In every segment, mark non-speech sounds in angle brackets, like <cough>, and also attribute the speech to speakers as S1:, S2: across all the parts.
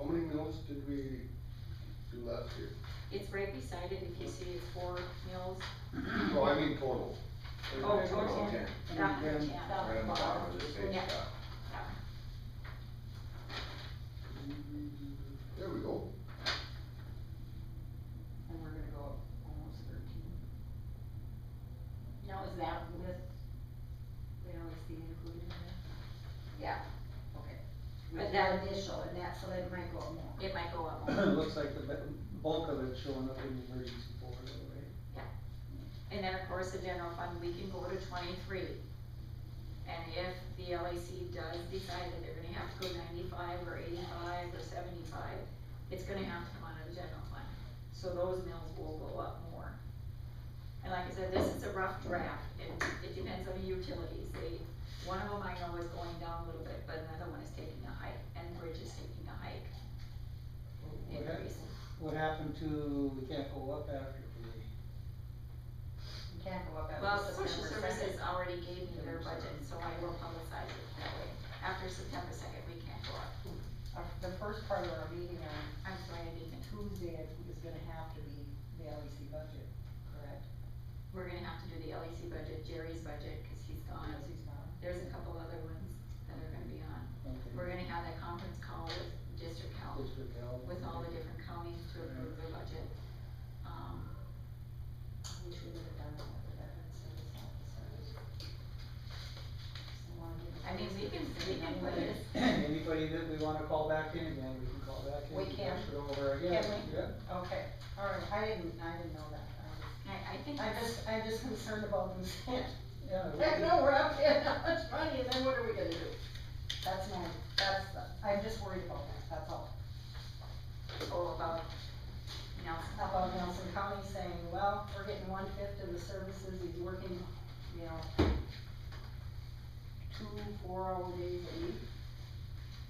S1: much did we do last year?
S2: It's right beside it, if you see it's four mills,
S1: Oh, I mean total.
S2: Oh,
S1: Okay.
S2: total.
S1: Okay.
S2: that one, yeah.
S1: Right on the bottom of the same
S2: Yeah.
S1: spot. There we go.
S3: And we're gonna go up almost thirteen. Now, is that with see included in there? Yeah, okay.
S2: But
S3: With
S2: that-
S3: that initial and that, so that might go up more.
S2: It might go up,
S4: It looks like the bu- bulk of it's showing up in the emergency board, right?
S2: and then of course the general fund, we can go to twenty-three. And if the LAC does decide that they're gonna have to go ninety-five or eighty-five or seventy-five, it's gonna have to come out of the general fund, so those mills will go up more. And like I said, this is a rough draft, it, it depends on the utilities, they, one of them I know is going down a little bit, but another one is taking a hike, and bridge is taking a hike
S4: What hap-
S2: increase.
S4: What happened to, we can't go up after we,
S3: You can't go up after
S2: Well, social
S3: September
S2: services
S3: second.
S2: already gave me their budget, so I will publicize it that way. After September second, we can't go up.
S3: Our- The first part of our meeting on
S2: I'm sorry, I didn't,
S3: Tuesday is gonna have to be the LEC budget, correct?
S2: we're gonna have to do the LEC budget, Jerry's budget, cause he's gone.
S3: Because he's not.
S2: There's a couple other ones that are gonna be on.
S4: okay,
S2: We're gonna have that conference call with district health,
S4: district health?
S2: with all the different counties to approve the budget. Um,
S3: Which we would have done that with the veteran service officers. So wanna give-
S2: I mean, we can, we can put it,
S4: <coughs> <coughs> Anybody that we wanna call back in, then we can call back in.
S3: We
S4: and
S3: can.
S4: Push it over again,
S3: Can we?
S4: yeah.
S3: Okay, all right, I didn't, I didn't know that. I was-
S2: I, I think
S3: I'm
S2: that's,
S3: just, I'm just concerned about <laughs> them saying,
S4: Yeah. we
S3: heck
S4: can.
S3: no, we're up there, how much money, and then what are we gonna do? That's my, that's, the- I'm just worried about that, that's all.
S2: all about Nelson.
S3: How about Nelson County saying, well, we're getting one fifth of the services, he's working, you know, two, four hour days a week.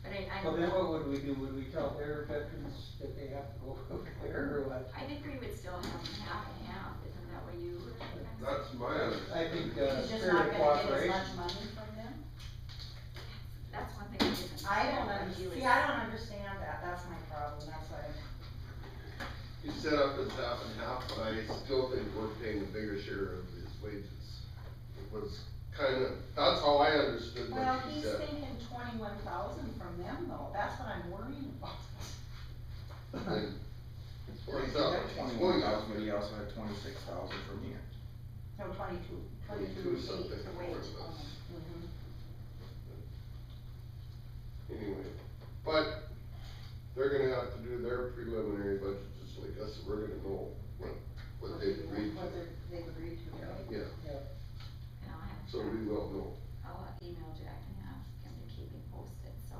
S2: But I, I.
S4: Well, then what would we do? Would we tell their veterans that they have to go <laughs> over there or what?
S2: I think we would still have half and half, isn't that what you were kind of saying?
S1: That's my
S4: I
S1: understanding.
S4: think, uh,
S3: He's just
S4: spirit
S3: not
S4: of
S3: gonna get as
S4: cooperation.
S3: much money from them.
S2: That's one thing I didn't.
S3: I don't
S2: understand.
S3: understand, see, I don't understand that, that's my problem, that's why, I'm-
S1: You set up as half and half, but I still think we're paying a bigger share of his wages. It was kind of, that's how I understood
S3: well,
S1: what you
S3: he's
S1: said.
S3: thinking twenty-one thousand from them though, that's what I'm worrying about.
S1: And
S5: Well, he's got twenty-one thousand, but he also had twenty-six thousand from here.
S3: No, twenty-two,
S1: Twenty-two
S3: twenty-two,
S1: is
S3: eight,
S1: something
S3: the wage.
S1: for us.
S3: Mhm.
S1: Anyway, but they're gonna have to do their preliminary budget just like us, so we're gonna know what, what they agreed
S3: What
S1: to.
S3: they're- they've agreed to, right?
S1: Yeah,
S2: And I'll "Oh, have, Oh,
S1: so we will know.
S2: I'll email Jack and ask him to keep me posted, so.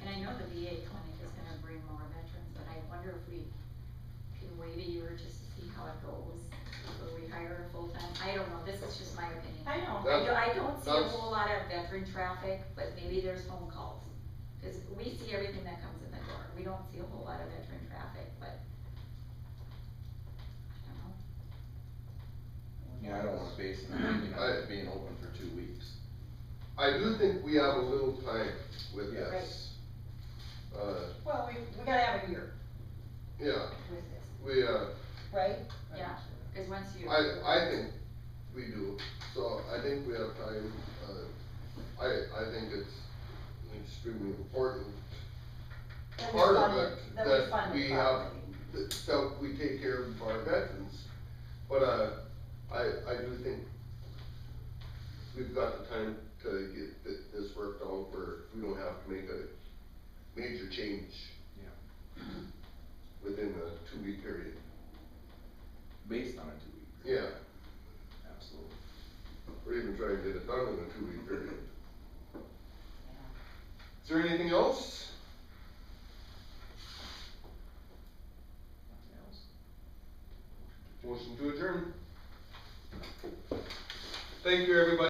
S2: And I know the VA clinic is gonna bring more veterans, but I wonder if we can wait a year just to see how it goes, before we hire a full-time, I don't know, this is just my opinion.
S3: I know,
S2: I don't,
S1: That-
S2: I don't see a
S1: that's-
S2: whole lot of veteran traffic, but maybe there's phone calls. Cause we see everything that comes in the door, we don't see a whole lot of veteran traffic, but. I don't know,
S5: Yeah, I don't wanna base it on, you know, it being open for two weeks.
S1: I do think we have a little time with this. Uh,
S3: well, we, we gotta have a year
S1: yeah,
S3: with this,
S1: we, uh,
S3: right?
S2: Yeah. cause once you.
S1: I, I think we do, so I think we have time, uh, I, I think it's extremely important
S3: That we
S1: Part of
S3: fund
S1: it
S3: That
S1: that
S3: we fund
S1: we
S3: it
S1: have-
S3: properly.
S1: that, that we take care of our veterans, but, uh, I, I do think we've got the time to get thi- this worked out where we don't have to make a major change.
S5: Yeah.
S1: Within a two-week period,
S5: Based on a two-week.
S1: yeah,
S5: Absolutely.
S1: or even try and get it done in a two-week period. Is there anything else?
S5: Nothing else?
S1: Motion to adjourn. Thank you, everybody.